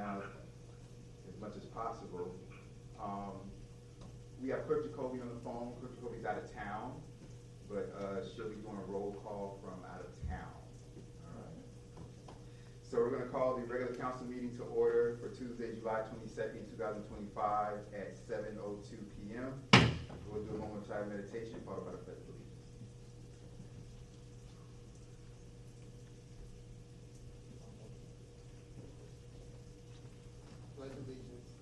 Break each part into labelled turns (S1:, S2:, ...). S1: out as much as possible. Um, we have Clerk Jacoby on the phone, Clerk Jacoby's out of town, but, uh, she'll be doing a roll call from out of town. All right. So we're gonna call the regular council meeting to order for Tuesday, July twenty-second, two thousand twenty-five at seven oh two P M. We'll do a moment of silent meditation followed by the pledge of allegiance.
S2: Pledge allegiance.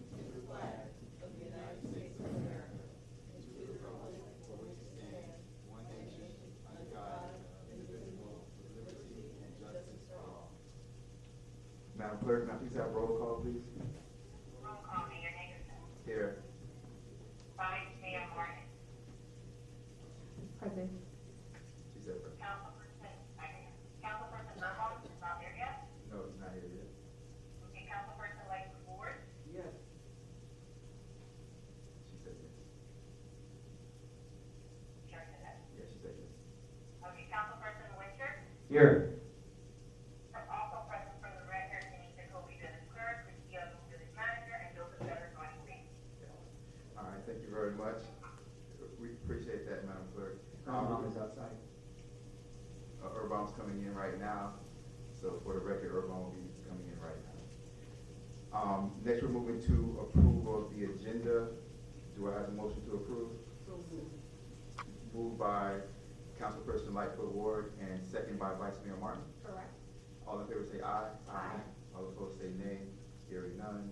S1: Madam Clerk, now please have roll call, please.
S3: Roll call, Mayor Hagerson.
S1: Here.
S3: Vice Mayor Martin.
S4: Present.
S1: She said, first.
S3: Councilperson, I mean, Councilperson Burbaum is not there yet.
S1: no, he's not here yet.
S3: Okay, Councilperson Lightfoot Ward.
S2: Yes.
S1: She said yes.
S3: Chair said that.
S1: Yeah, she said yes.
S3: Okay, Councilperson Winter.
S5: Here.
S3: Also present for the record, Denise Jacoby, village clerk, Christia, village manager, and Joseph Better, vice mayor.
S1: Yeah. All right, thank you very much. We appreciate that, Madam Clerk.
S5: Mom
S1: Um,
S5: is outside.
S1: Uh, Urban's coming in right now, so for the record, Urban will be coming in right now. Um, next, we're moving to approval of the agenda. Do I have a motion to approve? Moved by Councilperson Lightfoot Ward and second by Vice Mayor Martin.
S4: Correct.
S1: All in favor say aye. Aye. All opposed say nay. Hearing none.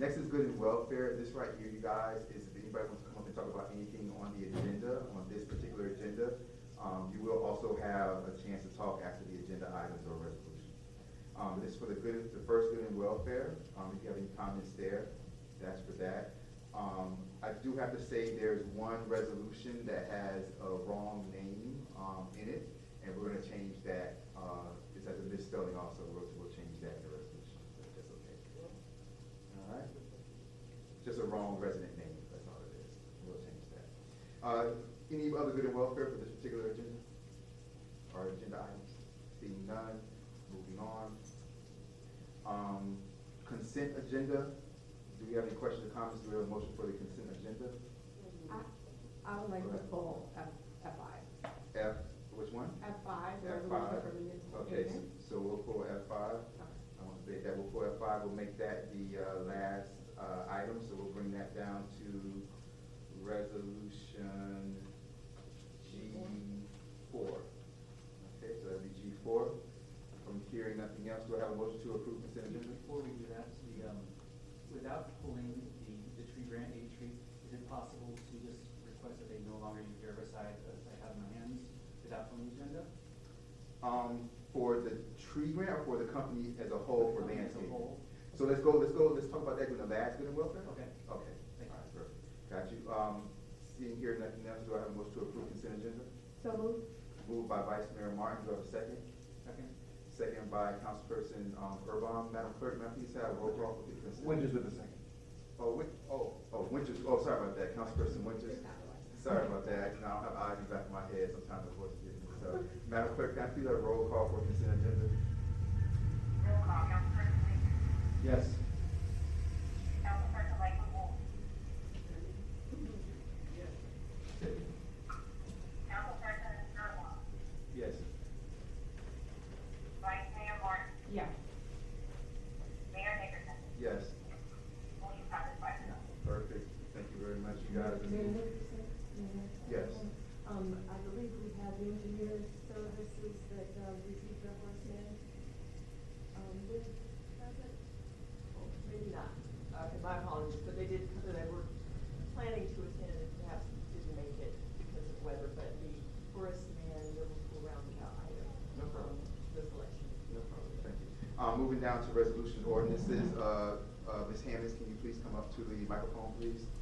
S1: Next is good and welfare. This right here, you guys, is if anybody wants to come up and talk about anything on the agenda, on this particular agenda, um, you will also have a chance to talk after the agenda items or resolutions. Um, this is for the good, the first good and welfare. Um, if you have any comments there, that's for that. Um, I do have to say there's one resolution that has a wrong name, um, in it, and we're gonna change that, uh, it has a misspelling also, we'll, we'll change that in the resolution, if that's okay. All right? Just a wrong resident name, that's all it is, we'll change that. Uh, any other good and welfare for this particular agenda? Or agenda items? Seeing none, moving on. Um, consent agenda, do we have any questions or comments, do we have a motion for the consent agenda?
S4: I, I would like to pull F, F five.
S1: F, which one?
S4: F five,
S1: F
S4: resolution
S1: five.
S4: for municipal
S1: Okay, s-
S4: payment.
S1: so we'll pull F five. I
S4: Okay.
S1: want to say that we'll pull F five, we'll make that the, uh, last, uh, item, so we'll bring that down to resolution G four. Okay, so that'd be G four. From hearing nothing else, do I have a motion to approve consent agenda?
S5: Before we do that, the, um, without pulling the, the tree grant, a tree, is it possible to just request that they no longer use herbicide as I have in my hands without pulling the agenda?
S1: Um, for the tree grant or for the company as a whole for
S5: As a
S1: landscaping?
S5: whole.
S1: So let's go, let's go, let's talk about that during the last good and welfare?
S5: Okay.
S1: Okay,
S5: Thank you.
S1: alright, perfect. Got you. Um, seeing here nothing else, do I have a motion to approve consent agenda?
S4: So moved.
S1: Moved by Vice Mayor Martin, do I have a second?
S5: Second?
S1: Second by Councilperson, um, Urban. Madam Clerk, may I please have roll call for the consent? Winters with the second. Oh, Win, oh, oh, Winters, oh, sorry about that, Councilperson Winters. Sorry about that, you know, I don't have eyes in the back of my head, sometimes the voice is getting me, so. Madam Clerk, can I please have a roll call for consent agenda?
S3: Roll call, Councilperson Winter.
S1: Yes.
S3: Councilperson Lightfoot Ward. Councilperson Burbaum.
S1: Yes.
S3: Vice Mayor Martin.
S4: Yeah.
S3: Mayor Hagerson.
S1: Yes.
S3: Motion passes five zero.
S1: Perfect, thank you very much, you guys.
S6: Mayor Nicholson?
S1: Yes.
S6: Um, I believe we have engineer services that, uh, received their first name. Um, this, present? Oh, Maybe not, okay, my apologies, but they did, come. they were planning to attend and perhaps didn't make it because of weather, but the Horace Mann Liverpool Roundabout item.
S1: No problem.
S6: um, The selection.
S1: No problem, thank you. Uh, moving down to resolution ordinances, uh, uh, Ms. Hammond, can you please come up to the microphone, please? um, uh,